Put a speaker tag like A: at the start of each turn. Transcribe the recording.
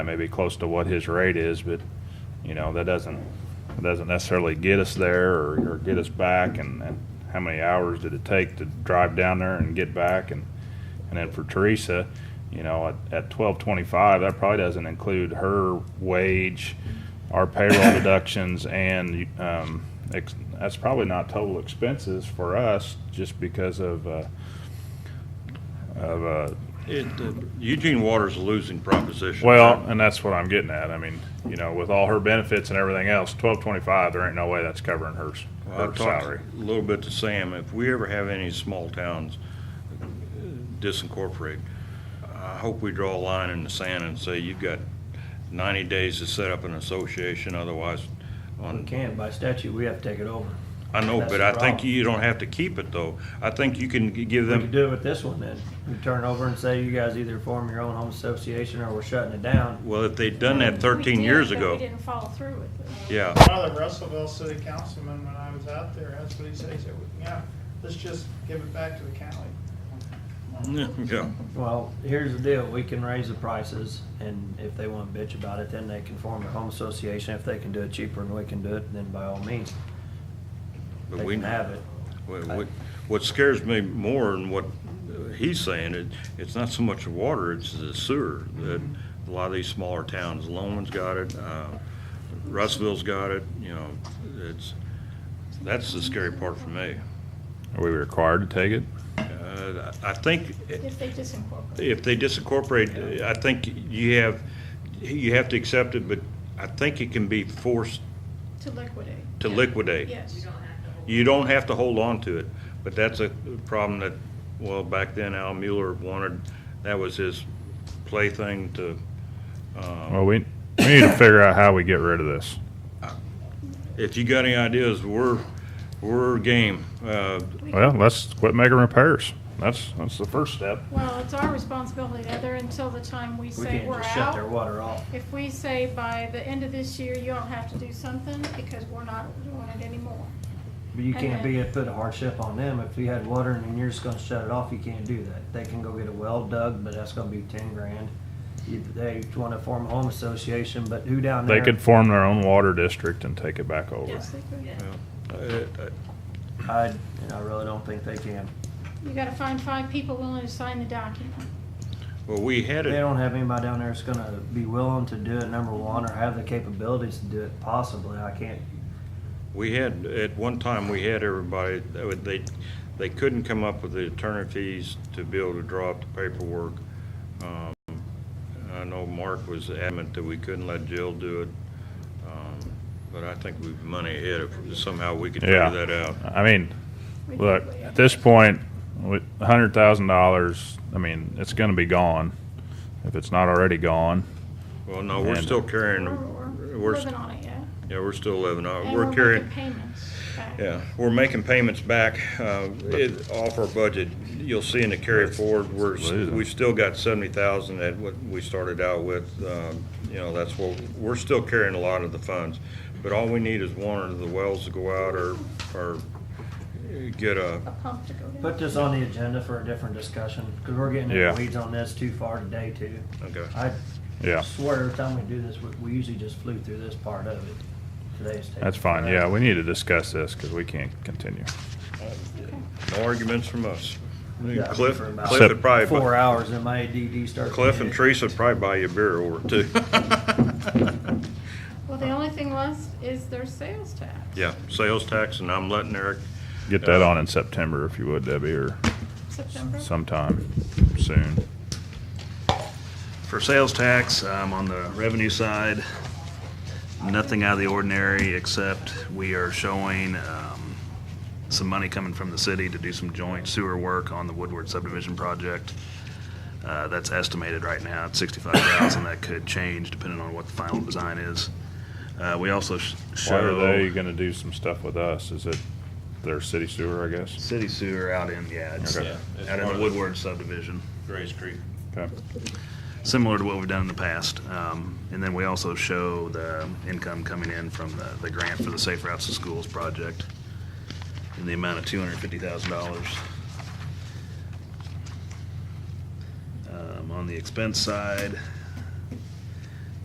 A: That may be close to what his rate is, but, you know, that doesn't, that doesn't necessarily get us there or, or get us back and, and how many hours did it take to drive down there and get back and, and then for Teresa, you know, at, at twelve twenty-five, that probably doesn't include her wage, our payroll deductions and, um, ex- that's probably not total expenses for us just because of, uh, of, uh,
B: It, uh, Eugene Water's a losing proposition.
A: well, and that's what I'm getting at. I mean, you know, with all her benefits and everything else, twelve twenty-five, there ain't no way that's covering hers,
B: Well,
A: her
B: I've talked
A: salary.
B: a little bit to Sam, if we ever have any small towns uh, disincorporate, I hope we draw a line in the sand and say, you've got ninety days to set up an association, otherwise
C: We
B: on,
C: can't, by statute, we have to take it over.
B: I know,
C: That's
B: but
C: the
B: I think
C: problem.
B: you don't have to keep it though. I think you can g- give
C: We could
B: them,
C: do it with this one then. We turn over and say, you guys either form your own home association or we're shutting it down.
B: well, if they'd done that
D: We
B: thirteen
D: did,
B: years
D: but
B: ago.
D: We didn't follow through with it.
B: Yeah.
E: A lot of the Russellville city councilmen, when I was out there, that's what he said, he said, yeah, let's just give it back to the county.
B: Yeah,
C: Well, here's the deal, we can raise the prices and if they want to bitch about it, then they can form their home association. If they can do it cheaper and we can do it, then by all means,
B: but
C: they
B: we-
C: can have it.
B: What- What what scares me more than what uh, he's saying, it, it's not so much the water, it's the sewer that a lot of these smaller towns, Loman's got it, uh, Russellville's got it, you know, it's, that's the scary part for me.
A: Are we required to take it?
B: Uh, I think
D: If they disincorporate.
B: if they disincorporate, I think you have, you have to accept it, but I think it can be forced
D: To liquidate.
B: to
D: Yeah.
B: liquidate.
D: Yes.
B: You don't have to hold on to it, but that's a problem that, well, back then Al Mueller wanted, that was his plaything to,
A: Well, we, we need to figure out how we get rid of this.
B: if you got any ideas, we're, we're game. Uh,
A: Well, let's quit making repairs. That's, that's the first step.
D: Well, it's our responsibility, Heather, until the time we
C: We
D: say
C: can't
D: we're
C: just shut their
D: out.
C: water off.
D: If we say by the end of this year, you all have to do something because we're not doing it anymore.
C: But you
D: And
C: can't
D: then-
C: be, put a hardship on them. If you had water and then you're just gonna shut it off, you can't do that. They can go get a well dug, but that's gonna be ten grand. You- They wanna form a home association, but who down there?
A: They could form their own water district and take it back over.
D: Yes, they could.
B: uh,
C: I, you know, I really don't think they can.
D: You gotta find five people willing to sign the document.
B: Well, we had
C: They
B: it,
C: don't have anybody down there that's gonna be willing to do it, number one, or have the capabilities to do it possibly. I can't.
B: we had, at one time, we had everybody, that would- they, they couldn't come up with the attorney fees to be able to draw up the paperwork. Um, I know Mark was adamant that we couldn't let Jill do it, um, but I think we've money ahead if somehow we could figure
A: Yeah.
B: that out.
A: I mean,
D: We did
A: look,
D: way
A: at
D: out.
A: this point, with a hundred thousand dollars, I mean, it's gonna be gone. If it's not already gone,
B: Well, no, we're
A: And-
B: still carrying,
D: We're
B: the-
D: we're
B: we're,
D: living on it, yeah.
B: yeah, we're still living on, it.
D: And
B: we're
D: we're
B: carrying,
D: making payments back.
B: yeah, we're making payments back, uh, it- off our budget. You'll see in the carry forward, we're, s-
A: Losing.
B: we've still got seventy thousand that what we started out with, um, you know, that's what, we're still carrying a lot of the funds. But all we need is one of the wells to go out or, or get uh, a,
D: A pump to go down.
C: Put this on the agenda for a different discussion, cause we're getting
A: Yeah.
C: into weeds on this too far today too.
B: okay.
C: I
A: yeah,
C: swear every time we do this, we, we usually just flew through this part of it. Today's. taking
A: that's fine.
C: forever.
A: Yeah, we need to discuss this, cause we can't continue.
B: No arguments from us.
C: Yeah,
B: Cliff,
C: for about
B: Cliff would probably.
C: Four hours and my ADD starts.
B: Cliff and
C: Tree.
B: Teresa would probably buy you a beer or two.
D: Well, the only thing left is their sales tax.
B: Yeah, sales tax, and I'm letting Eric,
A: Get that on in September if you would, Debbie, or
D: September.
A: sometime soon.
F: For sales tax, um, on the revenue side, nothing out of the ordinary, except we are showing, um, some money coming from the city to do some joint sewer work on the Woodward subdivision project. Uh, that's estimated right now at sixty-five thousand. That could change depending on what the final design is. Uh, we also sh-
A: Why are
F: show.
A: they gonna do some stuff with us? Is it their city sewer, I guess?
F: City sewer out in, yeah, it's
A: Okay.
F: out
B: Yeah, it's
F: in
B: part
F: the
B: of-
F: Woodward subdivision.
B: Grace Creek.
A: Okay.
F: similar to what we've done in the past. Um, And then we also show the income coming in from the, the grant for the Safe Routes to Schools project in the amount of two hundred and fifty thousand dollars. On the Um, expense side,